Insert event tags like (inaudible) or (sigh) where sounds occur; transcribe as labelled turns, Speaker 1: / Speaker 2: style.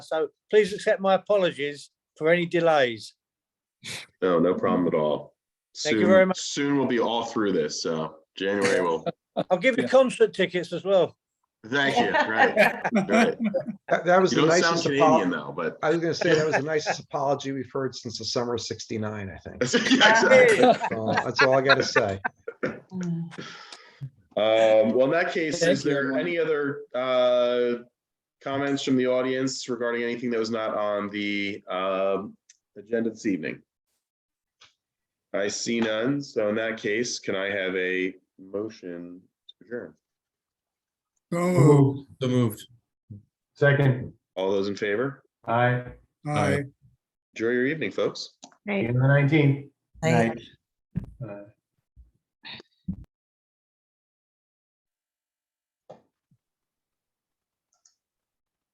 Speaker 1: So please accept my apologies for any delays.
Speaker 2: No, no problem at all.
Speaker 1: Mm-hmm. Thank you very
Speaker 2: Soon-
Speaker 1: much.
Speaker 2: Soon we'll be all through this, so
Speaker 1: (laughs)
Speaker 2: January will,
Speaker 1: I'll give you concert tickets as well.
Speaker 2: thank you, right,
Speaker 3: (laughs)
Speaker 2: right.
Speaker 4: That, that was
Speaker 2: You
Speaker 4: the
Speaker 2: don't sound
Speaker 4: nicest
Speaker 2: Canadian
Speaker 4: apology.
Speaker 2: though, but. (laughs)
Speaker 4: I was gonna say, that was the nicest apology we've heard since the summer of sixty-nine, I
Speaker 2: (laughs)
Speaker 4: think.
Speaker 2: Yeah, exactly.
Speaker 4: So That's all I gotta say.
Speaker 2: Um, well, in that case, is
Speaker 3: Thank you,
Speaker 2: there
Speaker 3: everyone.
Speaker 2: any other, uh, comments from the audience regarding anything that was not on the, um, agenda this evening? I see none, so in that case, can I have a motion to adjourn?
Speaker 5: So
Speaker 6: Moved.
Speaker 5: moved.
Speaker 6: So moved.
Speaker 5: Second.
Speaker 2: All those in favor?
Speaker 5: Aye.
Speaker 6: Aye.
Speaker 2: Enjoy your evening, folks.
Speaker 5: Eight and the nineteen.
Speaker 7: Right.
Speaker 5: Uh,